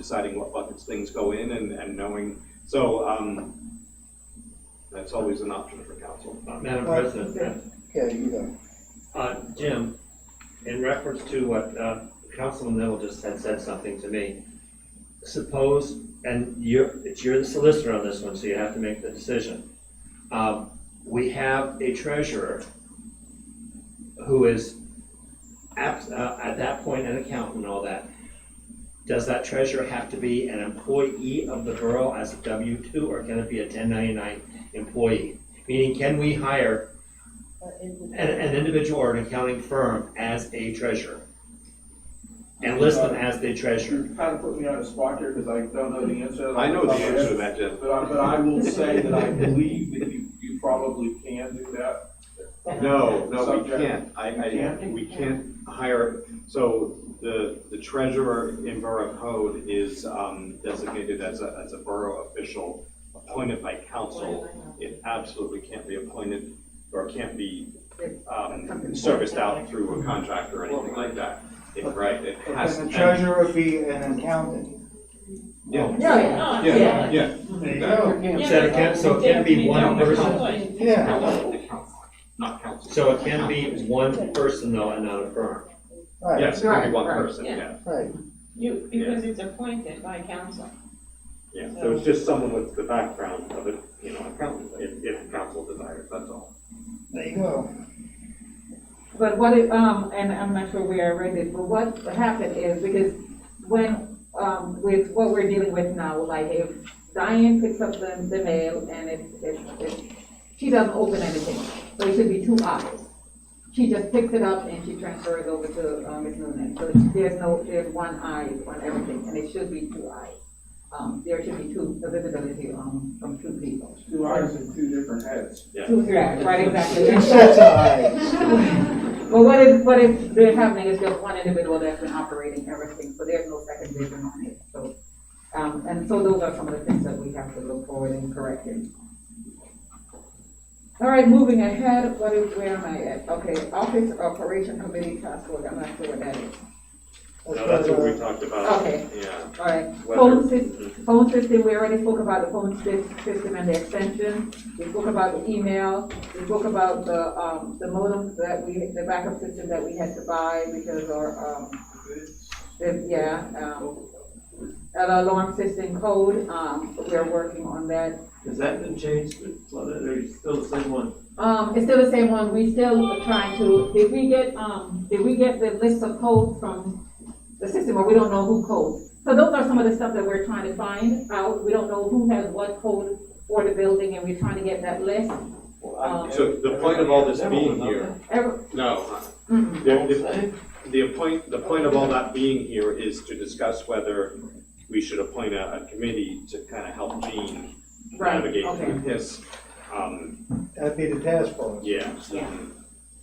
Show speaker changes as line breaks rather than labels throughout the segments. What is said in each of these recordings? deciding what buckets things go in and, and knowing, so, um, that's always an option for council.
Uh, Madam
Uh,
President,
Yeah, you go.
uh, Jim, in reference to what uh, Councilman Neville just had said something to me, suppose, and you're, it's- you're the solicitor on this one, so you have to make the decision. Um, We have a treasurer who is, at, at that point, an accountant and all that. Does that treasurer have to be an employee of the borough as a W-2, or can it be a 1099 employee? Meaning, can we hire an, an individual or an accounting firm as a treasurer. And list them as the treasurer.
You're kind of putting me on the spot here because I don't know the answer. to that.
I know the answer to that, Jeff.
But I, but I will say that I believe that you, you probably can do that.
No, no, we
Subject.
can't. I, I,
can't?
we can't hire, so the, the treasurer in borough code is um, designated as a, as a borough official appointed by council. It absolutely can't be appointed or can't be, um, serviced out through a contract or anything like that. It- Right, it has.
And the treasurer would be an accountant.
Yeah,
No, yeah.
yeah, yeah.
There
you
go.
So it can't, so it can be one person,
Yeah,
Not council.
so it can be one person though and not a firm.
right,
Yes, it can be one
Right, right,
person,
yeah.
yeah.
right.
You, because it's appointed by council.
Yeah, so it's just someone with the background of it, you know, accountant, if, if council desires, that's all.
There you go.
But what it, um, and I'm not sure where I read it, but what happened is, because when, um, with what we're dealing with now, like if Diane picks up the, the mail and it, it, it, she doesn't open anything, so it should be two hours. She just picks it up and she transfers it over to, um, Ms. Noonan, so there's no, there's one eye on everything, and it should be two eyes. Um, there should be two, the visibility, um, from two people.
Two eyes and two different heads.
Two, yeah, right, exactly.
Two sets of eyes.
Well, what is, what is, they're happening is just one individual that's been operating everything, so there's no second vision on it, so. Um, and so those are some of the things that we have to look forward and correct in. All right, moving ahead, what is, where am I at? Okay, Office Operation Committee Task Force, I'm not sure what that is.
No, that's what we talked about.
Okay.
Yeah.
All right,
Whether-
phone system, phone system, we already spoke about the phone sys- system and the extension. We spoke about the email, we spoke about the, um, the modem that we, the backup system that we had to buy because our, um, the- yeah, um, our alarm system code, um, we're working on that.
Has that been changed, Well, there's still the same one?
Um, it's still the same one, we still are trying to, did we get, um, did we get the list of codes from the system, or we don't know who codes? So those are some of the stuff that we're trying to find out, we don't know who has what code for the building, and we're trying to get that list. Um,
So the point of all this being here,
every-
no,
mm,
the, the- the point, the point of all that being here is to discuss whether we should appoint a, a committee to kind of help Gene
right,
navigate
okay.
through his, um,
uh, That'd be the task force.
yeah, so,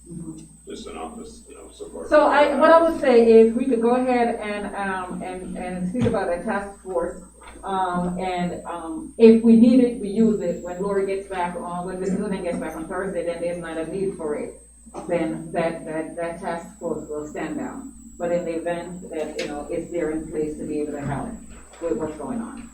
Mhm.
just an office, you know, support.
So I, what I would say is, we could go ahead and, um, and, and speak about a task force. Um, and, um, if we need it, we use it, when Lori gets back on, when Ms. Noonan gets back on Thursday, then there's not a need for it. Then that, that, that task force will stand down, but in the event that, you know, it's there in place to be able to help with what's going on.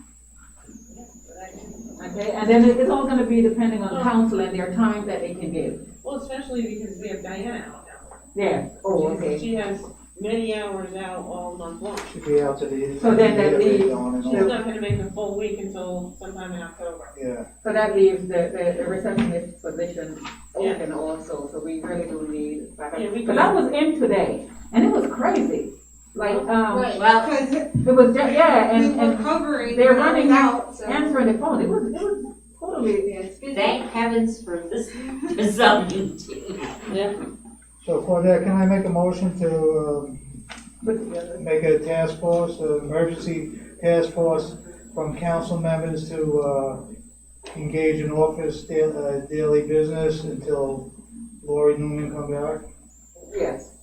Okay, and then it- it's all gonna be depending on council and their time that they can give,
Well, especially because we have Diana out now.
yeah, oh, okay.
She has many hours out all month long.
Should be out to the.
So then that leaves-
On and
She's
on.
not gonna make a full week until sometime in October.
Yeah,
So that leaves the, the, the receptionist position open also, so we really do need backup.
Yeah, we
Cause I was in today, and it was crazy, like, um,
Right,
Well-
because
it was, ju- yeah,
we
and,
were
and
covering.
they're
when I was
running
out, so.
answering the phone, it was, it was totally,
Yeah, it's busy.
Thank heavens for this, um, for some meeting.
so for that, can I make a motion to,
put together.
um, make a task force, an emergency task force from council members to, uh, engage in office da- uh, daily business until Lori Newman comes back?
yes.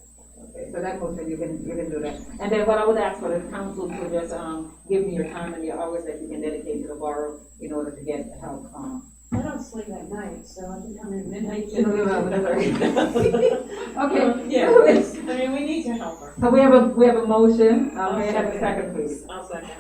Okay, So that motion, you can, you can do that. And then what I would ask for the council to just, um, give me your time and your hours that you can dedicate to the borough in order to get help, um.
I don't sleep at night, so I can come in midnight.
No, no, no, no, Okay.
Yeah, it's- I mean, we need to help her.
So we have a, we have a motion, um, may I have a second, please?
I'll second.